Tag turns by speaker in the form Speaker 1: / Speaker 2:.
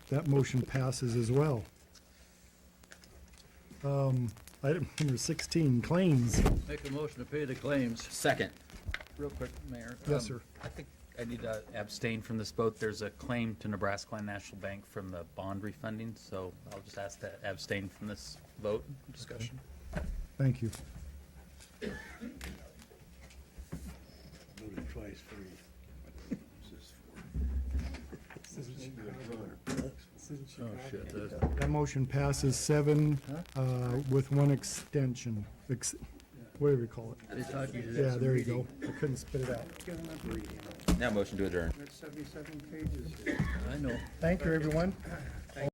Speaker 1: that motion passes as well. Um, Item number 16, claims.
Speaker 2: Make a motion to pay the claims.
Speaker 3: Second.
Speaker 2: Real quick, Mayor.
Speaker 1: Yes,
Speaker 2: Um,
Speaker 1: sir.
Speaker 3: I think I need to abstain from this vote. There's a claim to Nebraska Land National Bank from the bond refunding, so I'll just ask to abstain from this vote and discussion.
Speaker 1: Thank you.
Speaker 4: Voted twice for you. This is
Speaker 2: Oh, shit. that's-
Speaker 1: That motion passes seven uh, with one extension, ex- whatever you call it.
Speaker 2: They thought you did
Speaker 1: Yeah,
Speaker 2: some
Speaker 1: there you
Speaker 2: reading.
Speaker 1: go. I couldn't spit it out.
Speaker 4: Get enough reading.
Speaker 5: Now motion to adjourn.
Speaker 4: That's seventy-seven pages.
Speaker 2: I know.
Speaker 1: Thank you, everyone.